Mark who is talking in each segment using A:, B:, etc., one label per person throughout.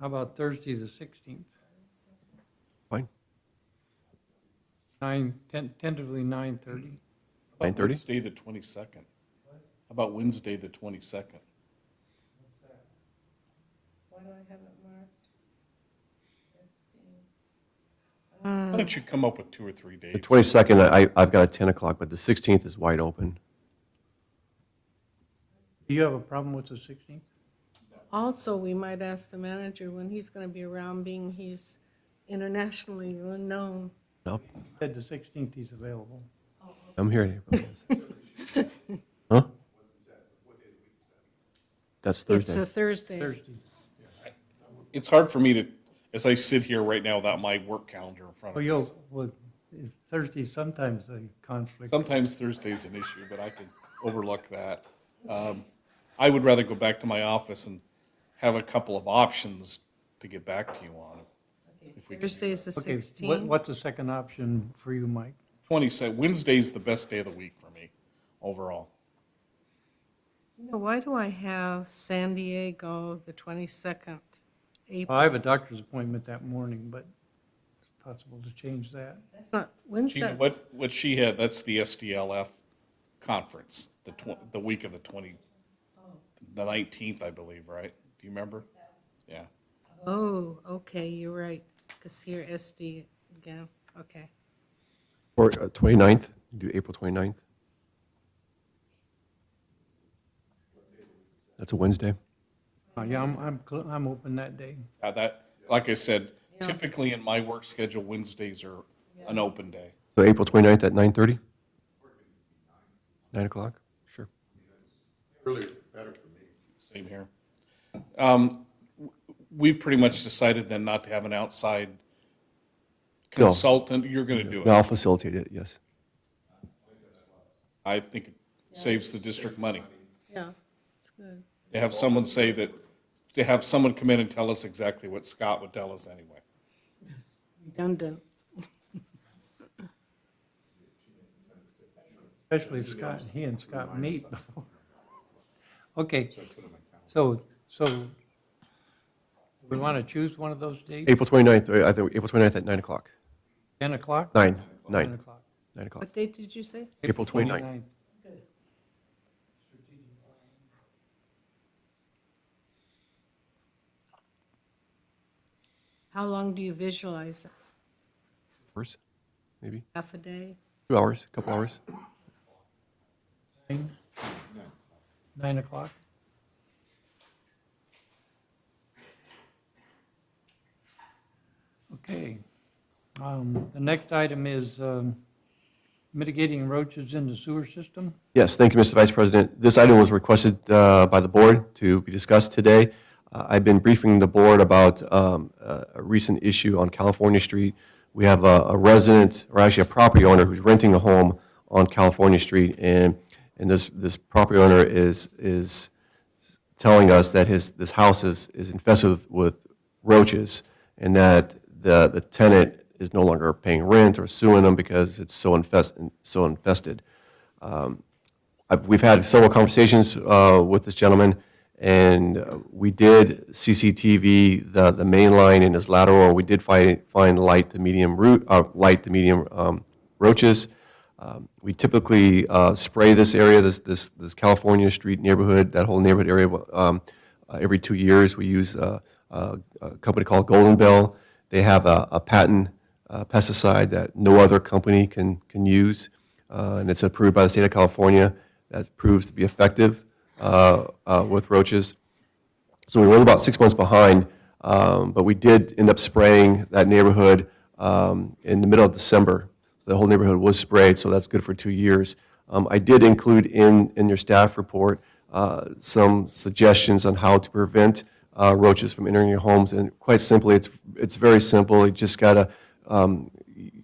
A: How about Thursday, the 16th?
B: Fine.
A: Nine, ten- tentatively 9:30.
C: How about
B: 9:30?
C: Wednesday, the 22nd. How about Wednesday, the 22nd?
D: Why do I have it marked? as being- uh,
C: Why don't you come up with two or three
B: The
C: dates?
B: 22nd, I, I've got a 10 o'clock, but the 16th is wide open.
A: Do you have a problem with the 16th?
D: Also, we might ask the manager when he's going to be around, being he's internationally known.
B: No,
A: Said the 16th he's available.
B: I'm here. Huh? That's
D: It's
B: Thursday.
D: a Thursday.
A: Thursday.
C: It's hard for me to, as I sit here right now without my work calendar in front
A: Well,
C: of
A: you'll,
C: me.
A: Oh, well, is Thursday sometimes a conflict.
C: Sometimes Thursday's an issue, but I can overlook that. Um, I would rather go back to my office and have a couple of options to get back to you on. If we can
D: Thursday is the
A: Okay, what,
D: 16th.
A: what's the second option for you, Mike?
C: 22nd, Wednesday's the best day of the week for me, overall.
D: You know, Why do I have San Diego the 22nd? April?
A: I have a doctor's appointment that morning, but it's possible to change that.
D: That's not, when's
C: She,
D: that?
C: what, what she had, that's the SDLF conference, the tw- the week of the twenty, the nineteenth, I believe, right? Do you remember? Yeah.
D: Oh, okay, you're right, because here SD again, okay.
B: Or uh, 29th, do April 29th? That's a Wednesday.
A: Uh, Yeah, I'm, I'm, cl- I'm open that day.
C: Uh, that, like I said,
D: Yeah.
C: typically in my work schedule, Wednesdays are an open day.
B: So April 29th at 9:30? 9 o'clock? Sure.
C: Same here. Um, w- we've pretty much decided then not to have an outside
B: No.
C: consultant. You're gonna do
B: No,
C: it.
B: I'll facilitate it, yes.
C: I think it saves the district money.
D: Yeah, it's good.
C: To have someone say that, to have someone come in and tell us exactly what Scott would tell us anyway.
D: Redundant.
A: Especially if Scott, he and Scott meet before. Okay, so, so we want to choose one of those dates,
B: April 29th, uh, I think, April 29th at 9 o'clock.
A: 10 o'clock?
B: 9,
A: 10
B: 9,
A: o'clock.
B: 9 o'clock.
D: What date did you say?
B: April 29th.
D: How long do you visualize? it?
B: Hours, maybe?
D: Half a day?
B: Two hours, couple hours?
A: Nine? Nine o'clock? Okay. Um, The next item is um, mitigating roaches in the sewer system.
B: Yes, thank you, Mr. Vice President. This item was requested uh, by the board to be discussed today. Uh, I've been briefing the board about um, a a recent issue on California Street. We have a a resident, or actually a property owner, who's renting a home on California Street, and, and this, this property owner is, is telling us that his, this house is, is infested with- with roaches, and that the, the tenant is no longer paying rent or suing them because it's so infested, so infested. I've, we've had several conversations uh, with this gentleman, and uh, we did CCTV the, the main line and his lateral. We did find, find light to medium root, uh, light to medium um, roaches. Um, we typically uh, spray this area, this, this, this California street neighborhood, that whole neighborhood area. Um, uh, every two years, we use uh, uh, a company called Golden Bell. They have a, a patent uh, pesticide that no other company can, can use, uh, and it's approved by the state of California. That proves to be effective uh, uh, with roaches. So we were about six months behind, um, but we did end up spraying that neighborhood um, in the middle of December. The whole neighborhood was sprayed, so that's good for two years. Um, I did include in, in your staff report uh, some suggestions on how to prevent uh, roaches from entering your homes, and quite simply, it's, it's very simple. You just gotta um,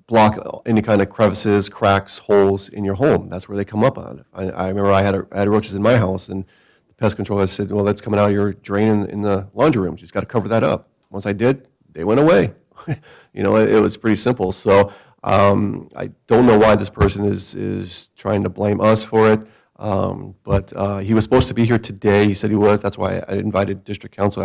B: block any kind of crevices, cracks, holes in your home. That's where they come up on. I, I remember I had, a, I had roaches in my house, and the pest control guy said, "Well, that's coming out of your drain in, in the laundry room. You just got to cover that up." Once I did, they went away. you know, it, it was pretty simple. So um, I don't know why this person is is trying to blame us for it. Um, but uh, he was supposed to be here today. He said he was. That's why I invited district council